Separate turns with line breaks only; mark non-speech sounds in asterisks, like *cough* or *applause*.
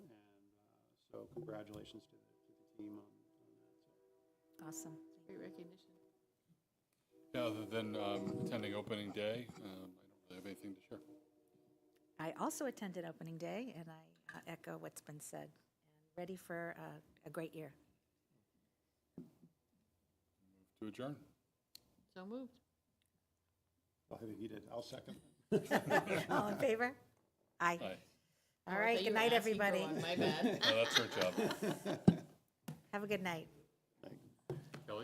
uh, So congratulations to the, to the team on, on that. So
Awesome.
Great recognition.
Yeah, other than um, attending opening day, um, I don't really have anything to share.
I also attended opening day, and I uh, echo what's been said. Ready for uh, a great year. *laughs*
To adjourn.
So moved.
I'll have you eat it. I'll second.
All in favor? Aye.
Aye.
Oh,
All right, good night, everybody.
My bad.
Oh, that's her job.
Have a good night.